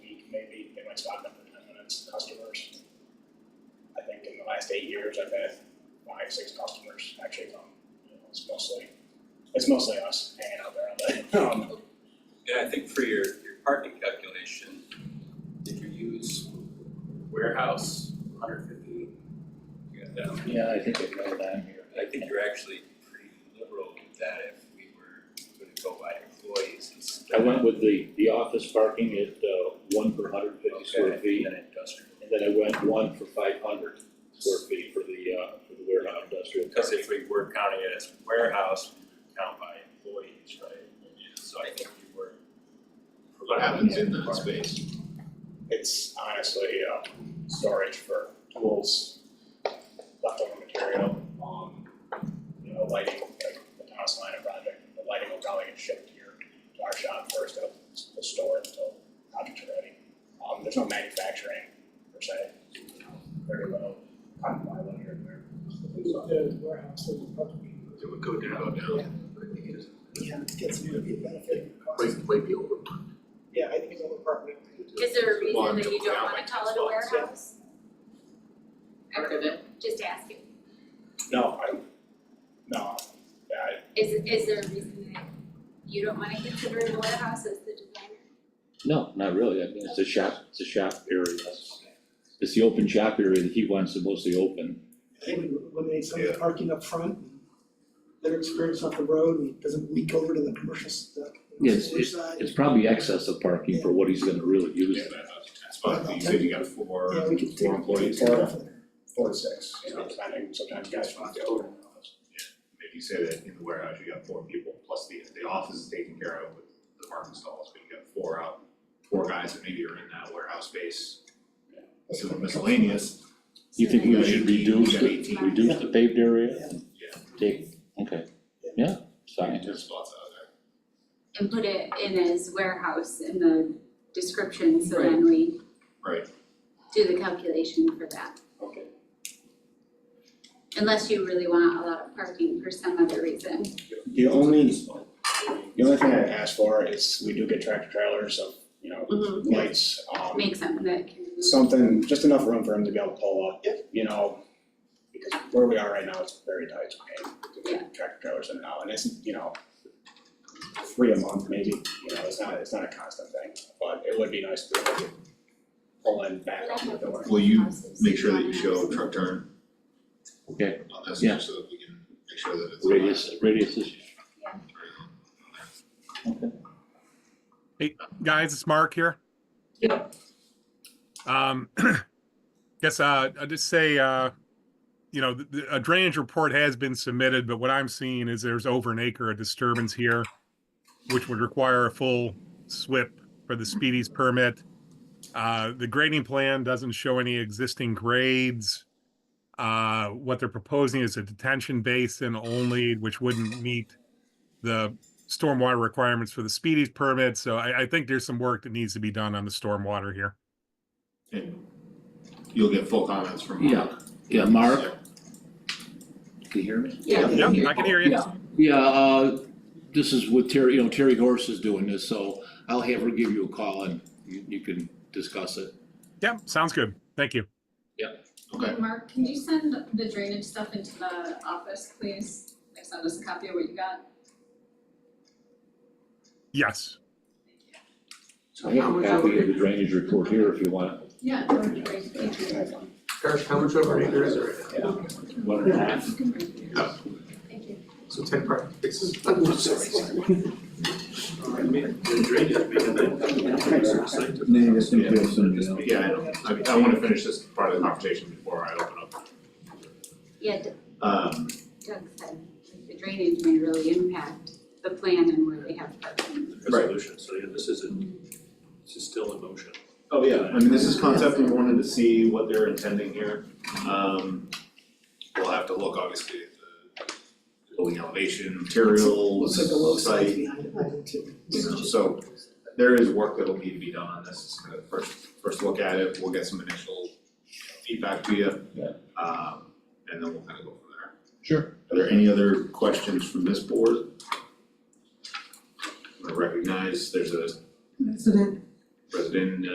it's not been it's customers. I think in the last eight years, I've had five, six customers actually come, you know, it's mostly, it's mostly us hanging out there on the, um, And I think for your, your parking calculation, did you use warehouse hundred fifty? You got that one. Yeah, I think it went down here. I think you're actually pretty liberal with that if we were gonna go by employees instead. I went with the, the office parking at, uh, one per hundred fifty square Okay, feet, and then industrial. and then I went one for five hundred square feet for the, uh, for the warehouse industrial. Because if we were counting it as warehouse, we would count by employees, right? So I think we were. What happens in that space? it's honestly, uh, storage for tools, leftover material, um, you know, lighting, like the Thomas Liner project, the lighting will probably get shipped to your, to our shop first, it'll, we'll store it until projects are ready. Um, there's no manufacturing per se, you know, very low, kind of low here and there. The warehouse that would probably. It would go down, go down. Yeah, it gets to be a benefit. Might, might be over. Yeah, I think it's over apartment. Is there a Well, reason that you yeah, don't wanna like call it a twelve, yeah. warehouse? Just asking, No, I, no, I, is is there a reason that you don't wanna consider it a warehouse as the designer? No, not really, I mean, it's a shop, it's a shop area. It's the open shop area that he wants to mostly open. They would eliminate some of Yeah. the parking up front, and their experience off the road, and it doesn't leak over to the commercial stuff. Yes, Storage side. It's probably excess of parking for what he's gonna really use. Yeah, that's fine, you said you got four, Yeah, we could take. four employees, take it off of there. four to six, you know, depending, sometimes guys from the older office. if you say that in the warehouse, you got four people, plus the, the office is taken care of with the parking stalls, but you got four out, four guys that maybe are in that warehouse space. So miscellaneous, You think we got should eighteen, you reduce got the, eighteen, reduce the paved area? Yeah. Take, okay, yeah, it's fine. ten spots out there. And put it in as warehouse in the description, so then we Right. do the calculation for that. Okay. Unless you really want a lot of parking for some other reason. The only, the only thing I ask for is we do get tractor trailers of, you know, Mm-hmm. lights, um, Make something that can move. something, just enough room for him to be able to pull up, you know. Because where we are right now, it's very tight, it's okay, to get tractor trailers in and out, and it's, you know, three a month maybe, you know, it's not, it's not a constant thing, but it would be nice to be able to pull in back on the door. Will you Make sure that you show truck turn. Okay. On this, Yeah. so that we can make sure that it's. Radius, radius is guys, it's Mark here. Yeah. Um, guess, uh, I'll just say, uh, you know, the- the, a drainage report has been submitted, but what I'm seeing is there's over an acre of disturbance here, which would require a full SWIP for the Speedies permit. Uh, the grading plan doesn't show any existing grades. Uh, what they're proposing is a detention basin only, which wouldn't meet the stormwater requirements for the speedies permit, so I, I think there's some work that needs to be done on the stormwater here. And You'll get full comments from Mark. Yeah, Mark? Can you hear me? Yeah. Yep, I can hear you. Yeah, yeah, uh, this is what Terry, you know, Terry Horse is doing this, so I'll have her give you a call and you, you can discuss it. Yep, sounds good. Thank you. Okay, Mark, can you send the drainage stuff into the office, please? Like send us a copy of what you got. Yes. I have a copy of the drainage report here if you want. Yeah, that would be great, thank you. Gosh, how much over acre is there? One and a half. You can bring it. Thank you. So ten part, this is. yeah, I know, I mean, I wanna finish this part of the conversation before I open up. Yeah, D- Um, Doug said, like, the drainage may really impact the plan and where they have parking. resolution, so yeah, this isn't, this is still in motion. oh yeah, I mean, this is concept, we wanted to see what they're intending here. Um, we'll have to look obviously at the building elevation, materials, Looks like the low sides site, behind it, I too. you know, so there is work that'll need to be done on this, it's kind of first, first look at it, we'll get some initial feedback to you. Yeah. Um, and then we'll kind of go from Sure. there. Are there any other questions from this board? I recognize there's a President resident, uh,